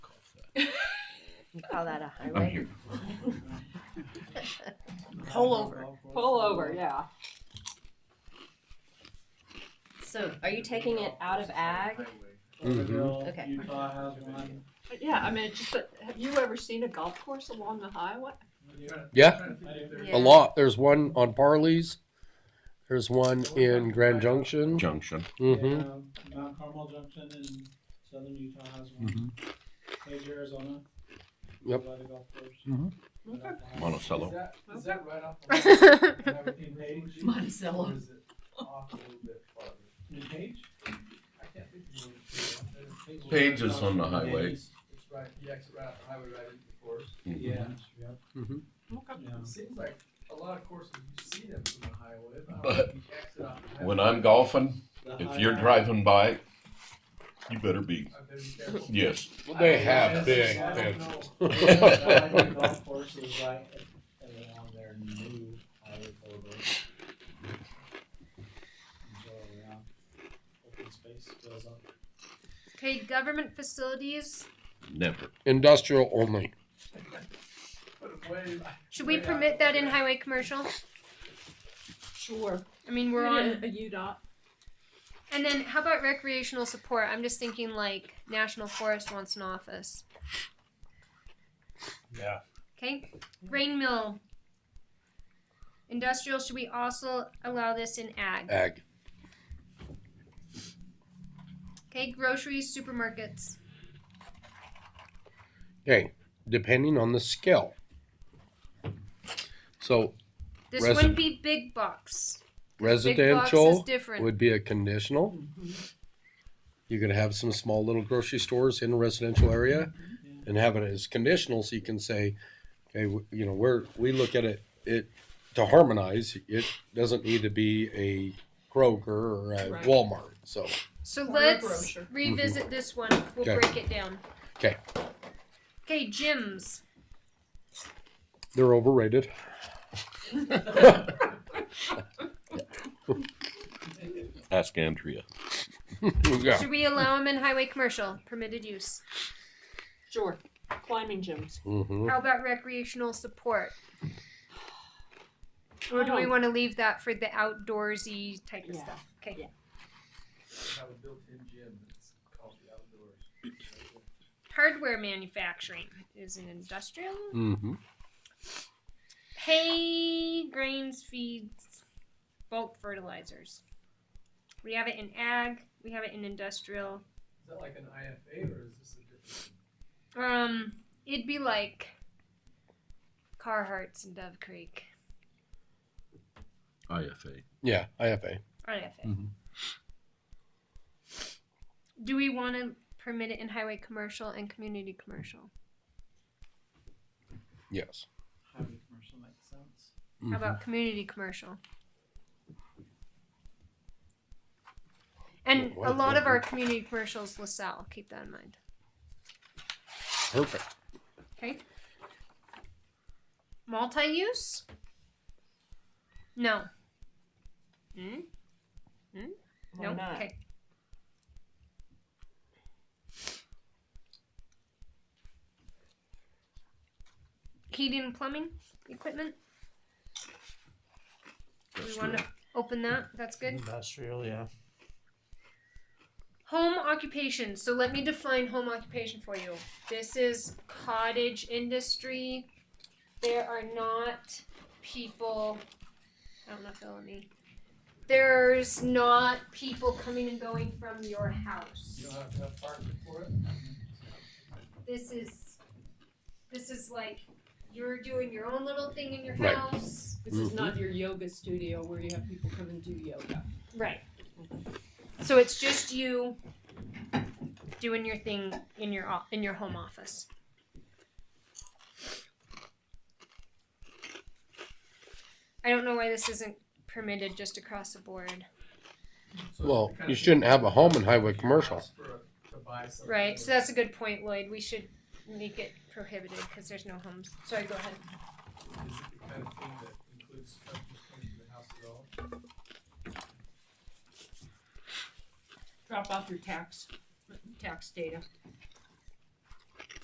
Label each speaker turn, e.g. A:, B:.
A: You call that a
B: I'm
A: highway?
B: here.
C: Pull over.
D: Pull over, yeah.
A: So are you taking it out of ag? Okay.
E: Mm-hmm.
F: Okay. Utah has one.
D: But yeah, I mean, it's just, that- have you ever seen a golf course along the highway?
E: Yeah,
A: Yeah.
E: a lot. There's one on Parley's. There's one in Grand Junction.
B: Junction.
E: Mm-hmm.
F: Yeah, um, Mount Carmel Junction in southern Utah has one. Page, Arizona.
E: Mm-hmm. Yep. Mm-hmm.
F: By the golf course. uh,
B: Mhm.
F: Right off the highway.
B: Monticello.
G: that, is that right off
F: In Page,
C: Monticello.
G: Or is it off a little bit farther?
F: in Page?
G: I can't think of what it's called.
B: Page is on the highway. Mm-hmm.
F: East.
G: It's right, yeah, it's right off the highway right into the forest.
F: Yeah, yep,
D: Okay.
F: yeah.
G: It seems like a lot of courses, you see them from the highway,
B: But
G: but you exit off the highway.
B: When I'm golfing,
F: The
B: if
F: high-
B: you're driving by, you better be.
G: I better be careful.
B: Yes.
E: They have
F: Yes,
E: big
F: I don't
E: fences.
F: know. Yeah, I think golf courses right around their new highway corridor. And So, yeah, open space fills up.
H: Okay, government facilities.
B: Never.
E: Industrial only.
G: Put it way back.
H: Should we permit that in highway commercial?
D: Sure.
H: I mean, we're on.
D: A UDOT.
H: And then how about recreational support? I'm just thinking like National Forest wants an office.
E: Yeah.
H: Okay. Grain mill. Industrial, should we also allow this in ag?
E: Ag.
H: Okay, groceries, supermarkets.
E: Okay. Depending on the skill. So
H: This
E: Resi-
H: wouldn't be big box. big box is
E: residential
H: different.
E: would be a conditional.
D: Mm-hmm.
E: You could have some small little grocery stores in a residential area and have it as conditional so you can say, okay, w- you know, we're, we look at it, it, to harmonize, it doesn't need to be a Kroger or a
D: Right.
E: Walmart, so.
H: So
D: Or a
H: let's
D: grocer.
H: revisit this one. We'll
E: Mm-hmm. Okay.
H: break it down.
E: 'Kay.
H: Okay, gyms.
E: They're overrated.
B: Ask Andrea.
E: Yeah.
H: Should we allow them in highway commercial? Permitted use.
D: Sure. Climbing gyms.
E: Mhm.
H: How about recreational support? Or do we
D: Um,
H: want to leave that for the outdoorsy type of
D: Yeah.
H: stuff? Okay.
D: Yeah.
G: Have a built-in gym that's called the outdoors.
H: Hardware manufacturing is an industrial.
E: Mhm.
H: Hay, grains, feeds, bulk fertilizers. We have it in ag. We have it in industrial.
G: Is that like an IFA or is this a different?
H: Um, it'd be like Carhartts and Dove Creek.
B: IFA.
E: Yeah, IFA.
H: IFA.
B: Mhm.
H: Mm-hmm. Do we want to permit it in highway commercial and community commercial?
E: Yes. Mm-hmm.
F: Highway commercial makes sense.
H: How about community commercial? And
E: What-
H: a lot of
E: what-
H: our community commercials, LaSalle, keep that in mind.
E: Perfect.
H: Okay. Multi use? No. Hmm?
A: Why
H: No?
A: not?
H: Okay. Heating and plumbing equipment? We want to open that. That's good.
C: Industrial, yeah.
H: Home occupation. So let me define home occupation for you. This is cottage industry. There are not people. I don't know if they'll let me. There's not people coming and going from your
G: You
H: house.
G: don't have to have parking for it?
H: This is. This is like you're doing your own little thing in your
E: Right.
H: house.
D: This is not your yoga studio where you have people come and do yoga.
H: Right. So it's just you doing your thing in your o- in your home office. I don't know why this isn't permitted just across the board.
G: So
E: Well,
G: it kinda
E: you shouldn't have a home in highway
G: Your
E: commercial.
G: house for a- to buy something.
H: Right. So that's a good point, Lloyd. We should make it prohibited because there's no homes. Sorry, go ahead.
G: Is it the kind of thing that includes customers coming to the house at all?
D: Drop off your tax, tax data.